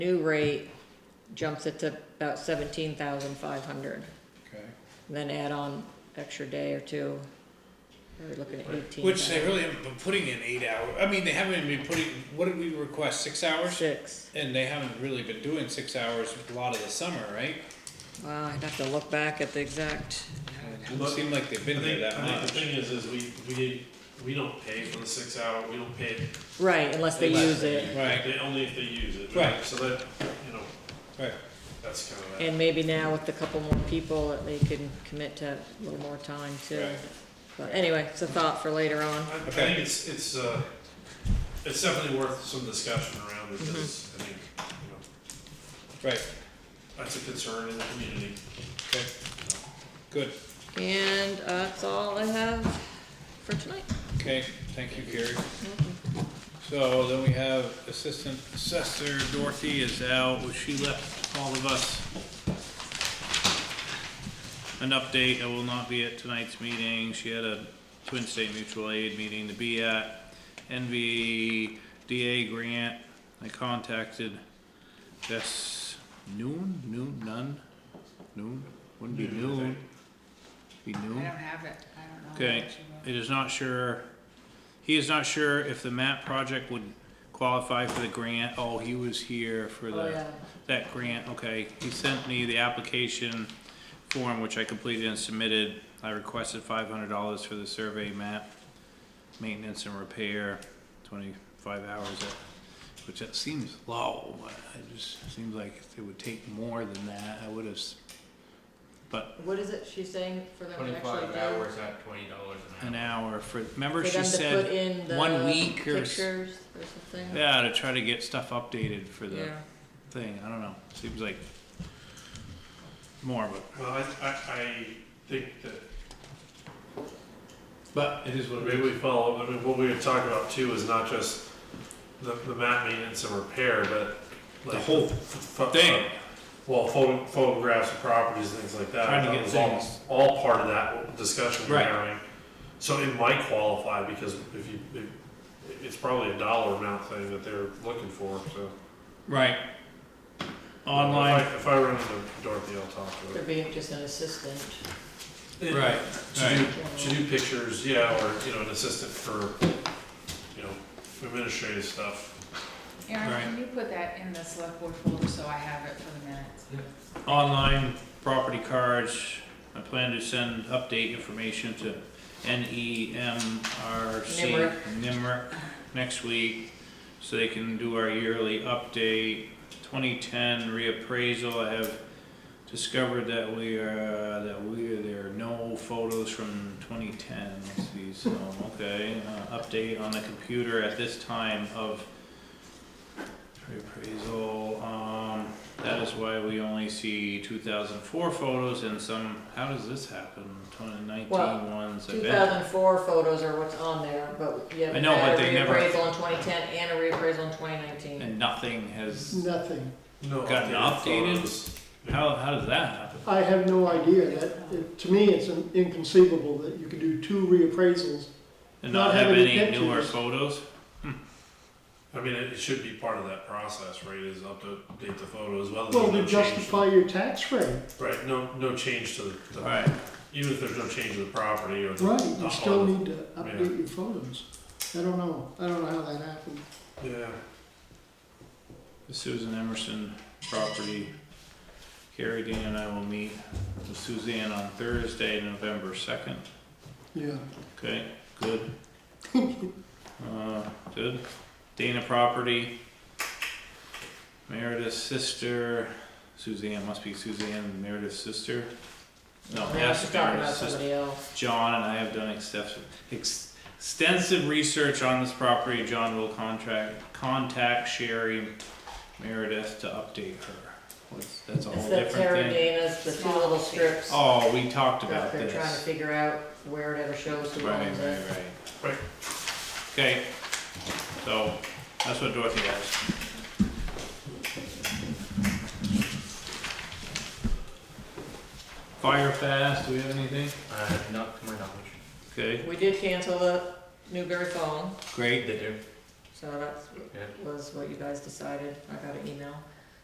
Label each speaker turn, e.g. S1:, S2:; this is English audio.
S1: new rate jumps it to about seventeen thousand five hundred.
S2: Okay,
S1: Then add on extra day or two, we're looking at eighteen.
S3: Which they really haven't been putting in eight hours. I mean, they haven't been putting, what did we request, six hours?
S1: Six,
S3: And they haven't really been doing six hours a lot of the summer, right?
S1: wow, I'd have to look back at the exact,
S3: Doesn't seem like they've
S4: I
S3: been there that
S4: think, I think the
S3: much.
S4: thing is, is we, we, we don't pay for the six hour, we don't pay,
S1: right, unless they
S3: Unless
S1: use it.
S3: Right,
S4: they, only if they use it.
S3: Right.
S4: So that, you know,
S3: right.
S4: that's kind of that.
S1: And maybe now with a couple more people, that they can commit to a little more time too.
S3: Right.
S1: But anyway, it's a thought for later on.
S4: I, I
S3: Okay.
S4: think it's, it's, uh, it's definitely worth some discussion around because, I think, you know,
S3: Right,
S4: that's a concern in the community.
S3: okay, good,
S1: And uh, that's all I have for tonight.
S3: okay, thank you, Gary. So then we have Assistant Assessor Dorothy is out, Well, she left all of us. An update, I will not be at tonight's meeting, she had a Twin State Mutual Aid meeting to be at. NVDA grant, I contacted this noon, noon, none, noon, wouldn't be
S4: Noon, I
S3: noon. Be
S5: I don't
S3: noon,
S5: have it, I don't know. what
S3: okay,
S5: you want.
S3: it is not sure, he is not sure if the MAP project would qualify for the grant, oh, he was here for the
S1: Oh, yeah.
S3: that grant, okay, he sent me the application form, which I completed and submitted. I requested five hundred dollars for the survey map, maintenance and repair, twenty-five hours, at- which that seems low, but it just seems like it would take more than that, I would have, but
S1: What is it she's saying for them to actually
S6: Twenty-five
S1: do?
S6: hours at twenty dollars
S3: an
S6: an hour.
S3: hour for, remember
S1: For
S3: she
S1: them to put
S3: said,
S1: in the
S3: one week or s-
S1: pictures or something?
S3: yeah, to try to get stuff updated for the
S1: Yeah.
S3: thing, I don't know, seems like more, but,
S4: Well, I, I, I think that
S3: but it is what it is.
S4: Maybe we follow, I mean, what we were talking about too is not just the, the mat maintenance and repair, but like.
S3: The whole
S4: f- f-
S3: thing.
S4: Well, photo, photographs of properties, things like that.
S3: Trying to
S4: That
S3: get
S4: was all-
S3: things.
S4: All part of that discussion we're
S3: Right.
S4: having. So it might qualify because if you, it, it's probably a dollar amount thing that they're looking for, so.
S3: Right.
S4: If
S3: Online.
S4: I- If I run into Dorothy, I'll talk to
S1: Could
S4: her.
S1: be just an assistant.
S4: It- To do, to do pictures, yeah, or, you know, an assistant for, you know, administrative stuff.
S5: Aaron, can you put that in the select board folder so I have it for the minutes?
S3: Online property cards. I plan to send update information to E NEMRC.
S1: NIMRIC.
S3: NIMRIC next week, so they can do our yearly update. Twenty-ten reappraisal, I have discovered that we are, that we, there are no photos from twenty-ten. Let's see, so, okay, uh, update on the computer at this time of reappraisal, um. That is why we only see two thousand four photos and some, how does this happen? Twenty
S1: Well,
S3: nineteen ones, I
S1: Two
S3: bet.
S1: thousand four photos are what's on there, but you
S3: I
S1: haven't
S3: know,
S1: had a
S3: but they never-
S1: reappraisal in twenty ten and a reappraisal in twenty nineteen.
S3: And nothing has,
S7: Nothing.
S4: No,
S3: Gotten updated?
S4: photos.
S3: how, how does that happen?
S7: I have no idea that, it- to me, it's inconceivable that you could do two reappraisals.
S3: And not
S7: Not
S3: have
S7: having
S3: any newer
S7: pictures.
S3: photos?
S4: I mean, it it should be part of that process, right? Is up to date the photos, well.
S7: Well, to justify your tax rate,
S4: Right, no, no change to the, the-
S3: Alright,
S4: even if there's no change to the property or the.
S7: right, you
S4: the
S7: still
S4: home.
S7: need to update your photos. I don't know, I don't know how that happened.
S4: Yeah,
S3: the Susan Emerson property. Carrie, Dan and I will meet with Suzanne on Thursday, November second.
S7: Yeah,
S3: Okay, good. Uh, good. Dana property. Meredith's sister, Suzanne, must be Suzanne, Meredith's sister. No,
S1: Yeah, she's
S3: that's
S1: talking about
S3: Meredith's sister.
S1: somebody else.
S3: John and I have done extensive, extensive research on this property. John will contract, contact Sherry Meredith to update her. What's- That's a
S1: It's
S3: whole
S1: the
S3: different thing.
S1: Terradana's, the two little strips.
S3: Oh, we talked
S1: that
S3: about
S1: They're trying to
S3: this.
S1: figure out where it ever shows who
S3: Right,
S1: owns
S3: right,
S1: it.
S3: right.
S4: right,
S3: Okay, so that's what Dorothy has. Fire fast, do we have anything?
S6: Uh, not to my knowledge.
S3: Okay,
S1: We did cancel the Newberry phone,
S3: great.
S6: They do.
S1: so that
S6: Yeah.
S1: was what you guys decided. I got an email.